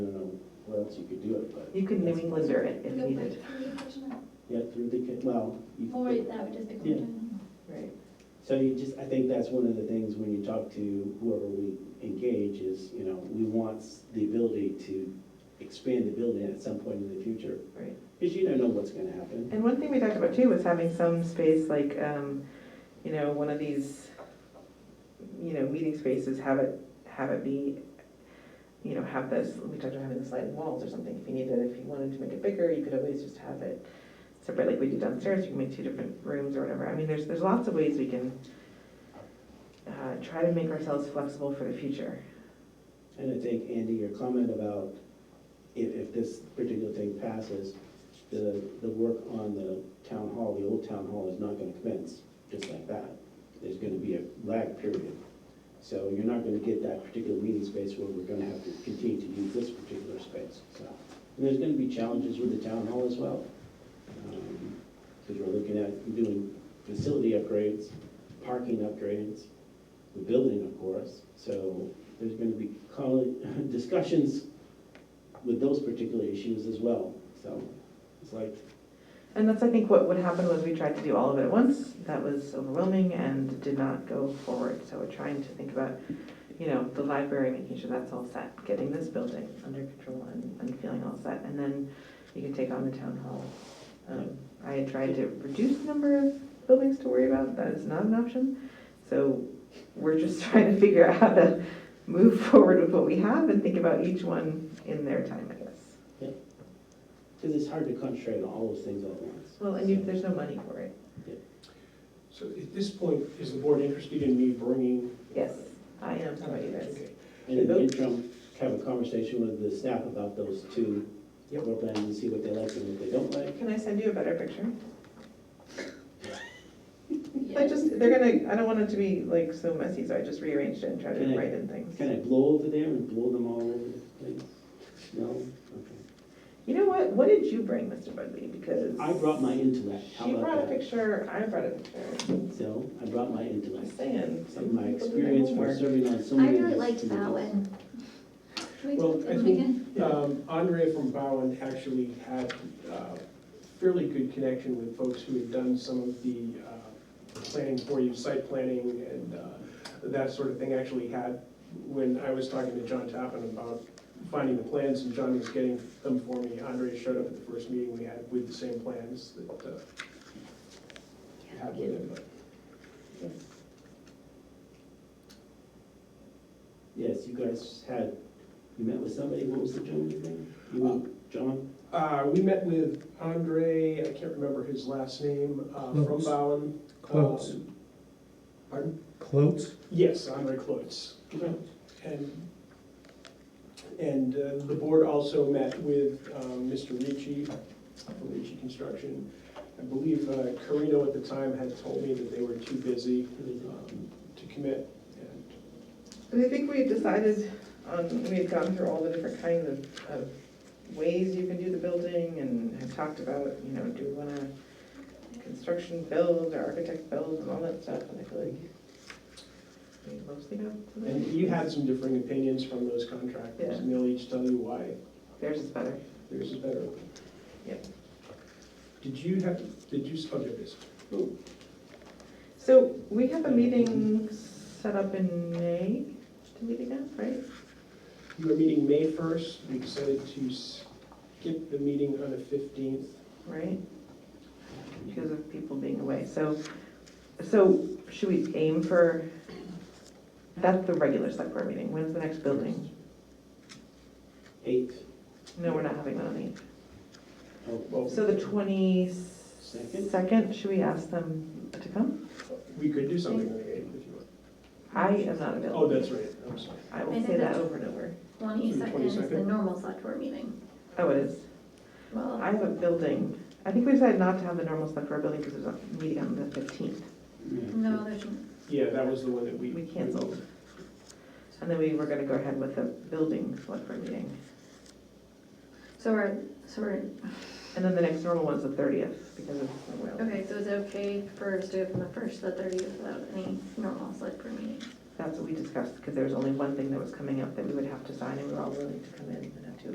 chance you could do it, but. You can New that's- Englander it if Go needed. back to the original. Yeah, you really could, well. you- Or that would just become Yeah. general. Right. So you just, I think that's one of the things when you talk to whoever we engage is, you know, we want s- the ability to expand the building at some point in the future. Right. Because you don't know what's gonna happen. And one thing we talked about too was having some space like, um, you know, one of these, you know, meeting spaces, have it, have it be, you know, have this, we talked about having the sliding walls or something, if you needed, if you wanted to make it bigger, you could always just have it separate, like we do downstairs, you can make two different rooms or whatever, I mean, there's, there's lots of ways we can uh, try to make ourselves flexible for the future. And I think, Andy, your comment about if, if this particular thing passes, the, the work on the town hall, the old town hall is not gonna commence just like that. There's gonna be a lag period. So you're not gonna get that particular meeting space where we're gonna have to continue to use this particular space, so. And there's gonna be challenges with the town hall as well. Because we're looking at doing facility upgrades, parking upgrades, the building, of course. So there's gonna be col- discussions with those particular issues as well, so it's like, And that's, I think, what would happen was we tried to do all of it at once. That was overwhelming and did not go forward. So we're trying to think about, you know, the library, making sure that's all set, getting this building under control and, and feeling all set. And then you can take on the town hall. Um, I had tried to reduce the number of buildings to worry about. That is not an option. So we're just trying to figure out how to move forward with what we have and think about each one in their time, I guess. because it's hard to concentrate on all those things all at once. Well, and you, there's no money for it. So at this point, is the board interested in me bringing? Yes, I am. How about you guys? Okay. And in the interim, have a conversation with the staff about those two Yep. floor plans and see what they like and what they don't like. Can I send you a better picture? I Yeah. just, they're gonna, I don't want it to be like so messy, so I just rearranged it and tried Can to I- write in things. Can I blow over there and blow them all over the place? No? Okay. You know what, what did you bring, Mr. Budley, because. I brought my intellect, how She brought a about that? picture, I brought a picture, So, I brought my I'm intellect, just saying. and my people do their experience from homework. serving on so I many. really liked that committees. one. Can we Well, do I that one think- again? Um, Andrea from Bowen actually had uh, fairly good connection with folks who had done some of the uh, planning for you, site planning and uh, that sort of thing, actually had, when I was talking to John Tappan about finding the plans, and John was getting them for me, Andrea showed up at the first meeting we had with the same plans that uh, had with him. Yes, you guys had, you met with somebody, what was the gentleman's name? You and John? Uh, we met with Andre, I can't remember his last name, uh, from Clotes. Bowen. Clotes. Um, Pardon? Clotes? Yes, Andre Clotes. And, and uh, the board also met with um, Mr. Ricci, from Ricci Construction. I believe uh, Carino at the time had told me that they were too busy um, to commit. And And I think we had decided on, we had gone through all the different kinds of, of ways you can do the building and had talked about, you know, do we wanna construction build or architect build and all that stuff, and I feel like we mostly got to that. And you had some differing opinions from those contractors, and they'll each tell you why Theirs is better. theirs is better. Yep. Did you have, did you, oh, there it is. So we have a meeting set up in May to meet again, right? You were meeting May 1st, we decided to skip the meeting on the 15th. Right? Because of people being away. So, so should we aim for, that's the regular select board meeting. When's the next building? Eight, No, we're not having one on the eighth. oh, Well, So the twenty-second, should we ask them to come? we could do something on the 8th if you want. I am not Oh, available. that's right, I'm sorry. I will say that over and over. Twenty-second is the 22nd. normal select board meeting. Oh, it is. Well, I have a building. I think we decided not to have the normal select board building because there's a meeting on the fifteenth. no, there's, n- Yeah, that was the one that we. We canceled. And then we were gonna go ahead with the building select board meeting. so we're, so we're, And then the next normal one's the thirtieth because of the well. okay, so is it okay for us to go from the first to the thirtieth without any normal select board meeting? That's what we discussed, because there was only one thing that was coming up that we would have to sign and we were all willing to come in and have to